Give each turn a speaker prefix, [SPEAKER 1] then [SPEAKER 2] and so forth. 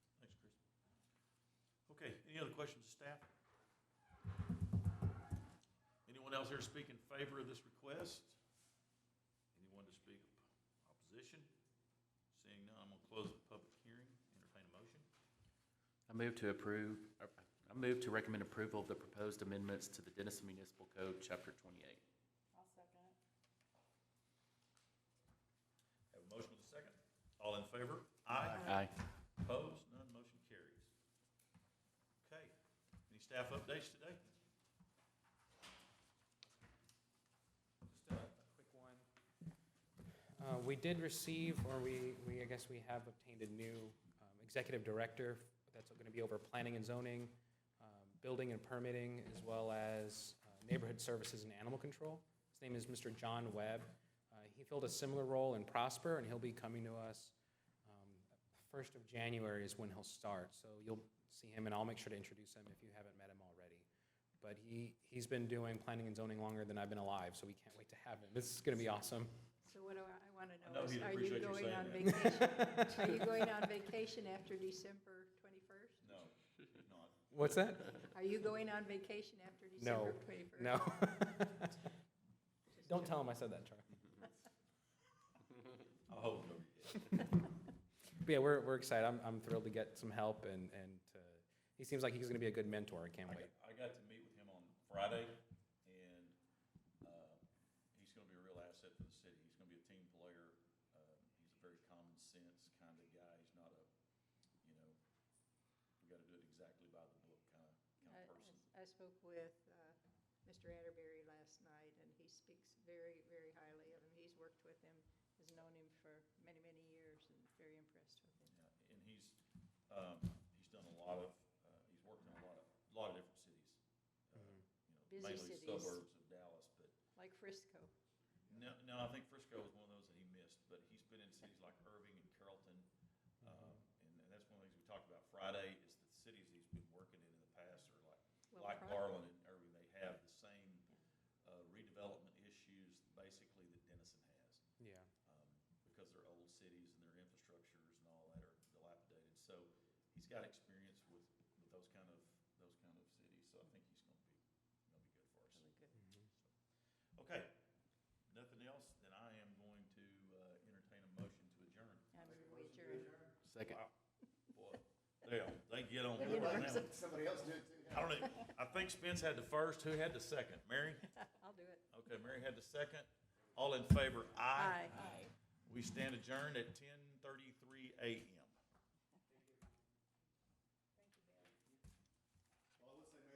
[SPEAKER 1] Okay, any other questions of staff? Anyone else here speak in favor of this request? Anyone to speak opposition? Seeing none, I'm gonna close the public hearing, entertain a motion.
[SPEAKER 2] I move to approve, I I move to recommend approval of the proposed amendments to the Denison Municipal Code, Chapter 28.
[SPEAKER 3] I'll second it.
[SPEAKER 1] Have a motion with a second. All in favor? Aye.
[SPEAKER 2] Aye.
[SPEAKER 1] Opposed? None, motion carries. Okay, any staff updates today?
[SPEAKER 4] Just a a quick one. Uh, We did receive, or we, we, I guess we have obtained a new um, executive director that's going to be over planning and zoning, um, building and permitting, as well as uh, neighborhood services and animal control. His name is Mr. John Webb. Uh, He filled a similar role in Prosper, and he'll be coming to us um, first of January is when he'll start. So you'll see him, and I'll make sure to introduce him if you haven't met him already. But he, he's been doing planning and zoning longer than I've been alive, so we can't wait to have him. This is going to be awesome.
[SPEAKER 3] So what do I, I want to
[SPEAKER 1] I know
[SPEAKER 3] know is,
[SPEAKER 1] he'd
[SPEAKER 3] are you
[SPEAKER 1] appreciate you
[SPEAKER 3] going
[SPEAKER 1] saying
[SPEAKER 3] on vacation? Are you going on vacation after December 21st?
[SPEAKER 1] No, not.
[SPEAKER 4] What's that?
[SPEAKER 3] Are you going on vacation after
[SPEAKER 4] No,
[SPEAKER 3] December 21st?
[SPEAKER 4] no. Don't tell him I said that, Charlie.
[SPEAKER 1] I hope nobody
[SPEAKER 4] But yeah, we're, we're excited. I'm, I'm thrilled to get some help, and, and uh, he seems like he's going to be a good mentor. I can't
[SPEAKER 1] I got,
[SPEAKER 4] wait.
[SPEAKER 1] I got to meet with him on Friday, and uh, he's going to be a real asset for the city. He's going to be a team player. Um, He's a very common sense kind of guy. He's not a, you know, we got to do it exactly by the book kind of, kind of person.
[SPEAKER 3] I- I spoke with uh, Mr. Atterbury last night, and he speaks very, very highly of him. He's worked with him, has known him for many, many years, and very impressed with him.
[SPEAKER 1] Yeah, And he's, um, he's done a lot of, uh, he's worked in a lot of, a lot of different cities. uh,
[SPEAKER 4] Mhm.
[SPEAKER 1] you know,
[SPEAKER 3] Busy cities.
[SPEAKER 1] Mainly suburbs of Dallas, but
[SPEAKER 3] Like Frisco.
[SPEAKER 1] No, no, I think Frisco was one of those that he missed, but he's been in cities like Irving and Carrollton. Um, and, and that's one of the things we talked about Friday is the cities he's been working in in the past are like,
[SPEAKER 3] Well,
[SPEAKER 1] like
[SPEAKER 3] Pro-
[SPEAKER 1] Garland and Irving, they have the same uh, redevelopment issues basically that Denison has.
[SPEAKER 4] Yeah.
[SPEAKER 1] Um, because they're old cities and their infrastructures and all that are dilapidated. So he's got experience with, with those kind of, those kind of cities. So I think he's gonna be, gonna be good for us.
[SPEAKER 3] Really good.
[SPEAKER 4] Mhm.
[SPEAKER 1] Okay, nothing else, then I am going to uh, entertain a motion to adjourn.
[SPEAKER 3] I move we adjourn.
[SPEAKER 2] Second.
[SPEAKER 1] Wow, Boy, they, they get on
[SPEAKER 3] They
[SPEAKER 1] board
[SPEAKER 3] get
[SPEAKER 1] now.
[SPEAKER 5] Somebody else do it too.
[SPEAKER 1] I don't know, I think Spence had the first, who had the second? Mary?
[SPEAKER 3] I'll do it.
[SPEAKER 1] Okay, Mary had the second. All in favor, aye.
[SPEAKER 3] Aye.
[SPEAKER 1] We stand adjourned at ten thirty-three AM.